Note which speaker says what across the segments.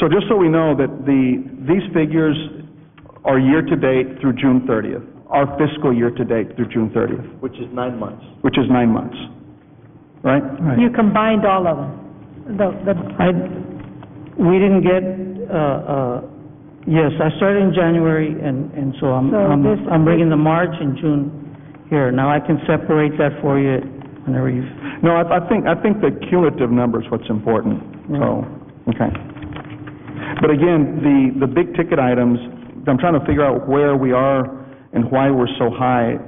Speaker 1: So just so we know that the, these figures are year-to-date through June 30th, our fiscal year-to-date through June 30th,
Speaker 2: which is nine months.
Speaker 1: which is nine months, right?
Speaker 3: You combined all of them, the, the,
Speaker 4: I, we didn't get, uh, uh, yes, I started in January, and, and so I'm,
Speaker 3: So
Speaker 4: I'm
Speaker 3: this-
Speaker 4: I'm bringing the March and June here. Now I can separate that for you whenever you,
Speaker 1: No, I, I think, I think the cumulative number is what's important, so, okay. But again, the, the big-ticket items, I'm trying to figure out where we are and why we're so high.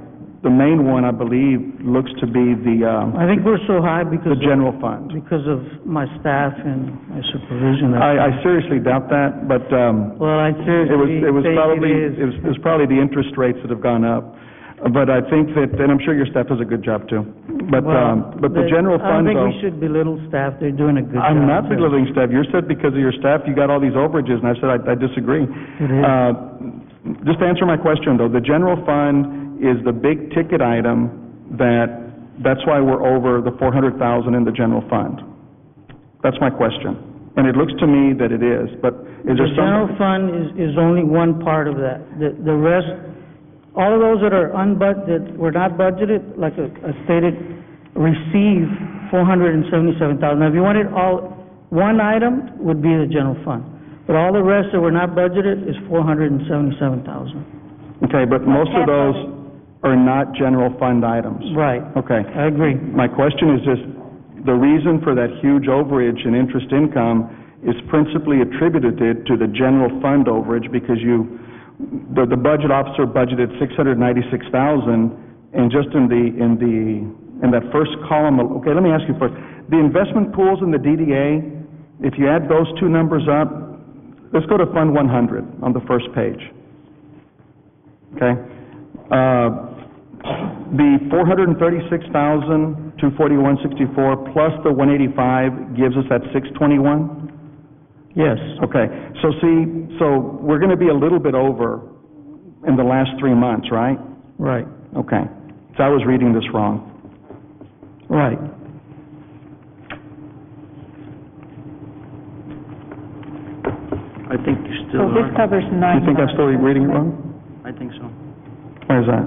Speaker 1: The main one, I believe, looks to be the, um,
Speaker 4: I think we're so high
Speaker 1: the
Speaker 4: because, of-
Speaker 1: general fund.
Speaker 4: because of my staff and my supervision.
Speaker 1: I, I seriously doubt that, but, um,
Speaker 4: Well, I
Speaker 1: It was,
Speaker 4: seriously
Speaker 1: it was
Speaker 4: think
Speaker 1: probably,
Speaker 4: it
Speaker 1: it
Speaker 4: is.
Speaker 1: was, it was probably the interest rates that have gone up. But I think that, and I'm sure your staff does a good job too. But,
Speaker 4: Well,
Speaker 1: um, but the general
Speaker 4: I
Speaker 1: fund
Speaker 4: don't think
Speaker 1: though,
Speaker 4: we should belittle staff, they're doing a good job.
Speaker 1: I'm not
Speaker 4: there.
Speaker 1: belittling staff. You said because of your staff, you got all these overages, and I said, I, I disagree.
Speaker 4: is.
Speaker 1: Uh, just to answer my question though, the general fund is the big ticket item that, that's why we're over the four hundred thousand in the general fund. That's my question. And it looks to me that it is, but is
Speaker 4: The
Speaker 1: there some?
Speaker 4: general fund is, is only one part of that. The, the rest, all of those that are unbud, that were not budgeted, like I I stated, receive four hundred and seventy-seven thousand. Now, if you wanted all, one item would be the general fund. But all the rest that were not budgeted is four hundred and seventy-seven thousand.
Speaker 1: Okay, but most of those are not general fund items.
Speaker 4: Right,
Speaker 1: Okay.
Speaker 4: I agree.
Speaker 1: My question is just, the reason for that huge overage in interest income is principally attributed to the general fund overage because you, the, the budget officer budgeted six hundred ninety-six thousand and just in the, in the, in that first column, al- okay, let me ask you first. The investment pools and the DDA, if you add those two numbers up, let's go to Fund one hundred on the first page okay? Uh, The 436,241.64 plus the 185 gives us that 621?
Speaker 4: Yes.
Speaker 1: Okay, so see, so we're going to be a little bit over in the last three months, right?
Speaker 4: Right,
Speaker 1: Okay, so I was reading this wrong.
Speaker 4: right.
Speaker 2: I think you
Speaker 3: so
Speaker 2: still
Speaker 3: this
Speaker 2: are.
Speaker 3: covers
Speaker 1: Do
Speaker 3: nine
Speaker 1: you think I'm
Speaker 3: months.
Speaker 1: still reading it wrong?
Speaker 2: I think so.
Speaker 1: Why is that?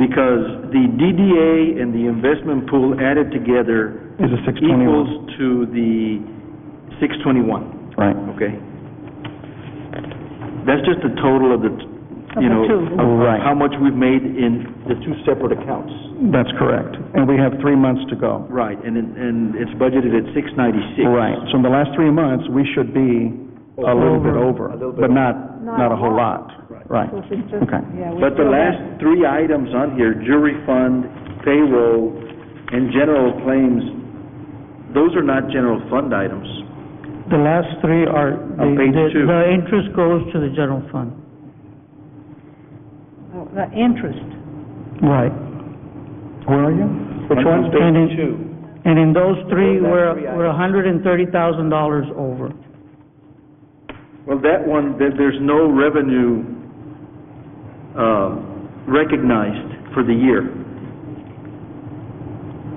Speaker 2: Because the DDA and the investment pool added together
Speaker 1: Is it 621?
Speaker 2: equals to the six twenty-one,
Speaker 1: Right.
Speaker 2: okay? That's just the total of the, t- you
Speaker 3: Of the
Speaker 2: know,
Speaker 3: two.
Speaker 2: of- of
Speaker 1: Right.
Speaker 2: how much we've made in the two separate accounts.
Speaker 1: That's correct, and we have three months to go.
Speaker 2: Right, and, it- and it's budgeted at six ninety-six.
Speaker 1: Right, so in the last three months, we should be a little bit over, but not, not a whole lot. Right,
Speaker 3: So it's just-
Speaker 1: okay.
Speaker 3: yeah, we
Speaker 2: But the
Speaker 3: still have-
Speaker 2: last three items on here, jury fund, payroll, and general claims, those are not general fund items.
Speaker 4: The last three are, the,
Speaker 2: On page
Speaker 4: the
Speaker 2: two.
Speaker 4: the interest goes to the general fund.
Speaker 3: oh, The interest,
Speaker 4: Right.
Speaker 1: Where are you? Which one?
Speaker 4: And in-
Speaker 2: two.
Speaker 4: And in those three, we're,
Speaker 2: three
Speaker 4: we're a hundred and thirty thousand dollars over.
Speaker 2: Well, that one, there, there's no revenue, uh, recognized for the year.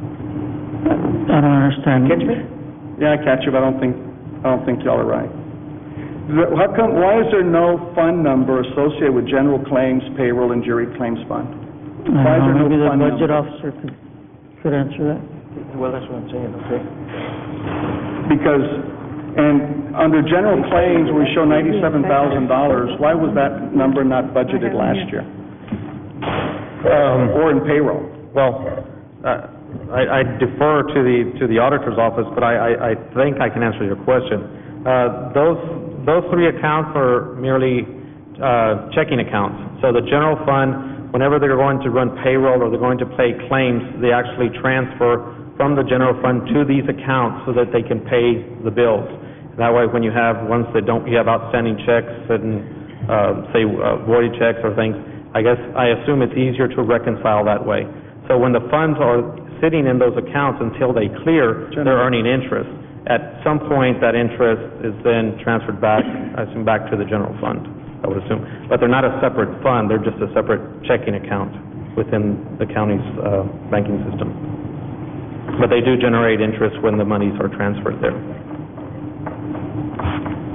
Speaker 4: I don't understand.
Speaker 1: Yeah, I catch you, but I don't think, I don't think y'all are right. The- How come, why is there no fund number associated with general claims, payroll, and jury claims fund?
Speaker 4: I don't
Speaker 1: Why is there
Speaker 4: know,
Speaker 1: no
Speaker 4: maybe the
Speaker 1: fund
Speaker 4: budget
Speaker 1: number?
Speaker 4: officer could, could answer that.
Speaker 2: Well, that's what I'm saying, okay?
Speaker 1: Because, and under general claims, we show ninety-seven thousand dollars, why was that number not budgeted last year?
Speaker 5: Um,
Speaker 1: Or in payroll?
Speaker 5: Well, uh, I I defer to the, to the auditor's office, but I- I, I think I can answer your question. Uh, Those, those three accounts are merely uh, checking accounts. So the general fund, whenever they're going to run payroll or they're going to pay claims, they actually transfer from the general fund to these accounts so that they can pay the bills. That way, when you have ones that don't, you have outstanding checks and, uh, say, uh, voided checks or things, I guess, I assume it's easier to reconcile that way. So when the funds are sitting in those accounts until they clear, they're earning interest. At some point, that interest is then transferred back, I assume, back to the general fund, I would assume. But they're not a separate fund, they're just a separate checking account within the county's uh, banking system. But they do generate interest when the monies are transferred there.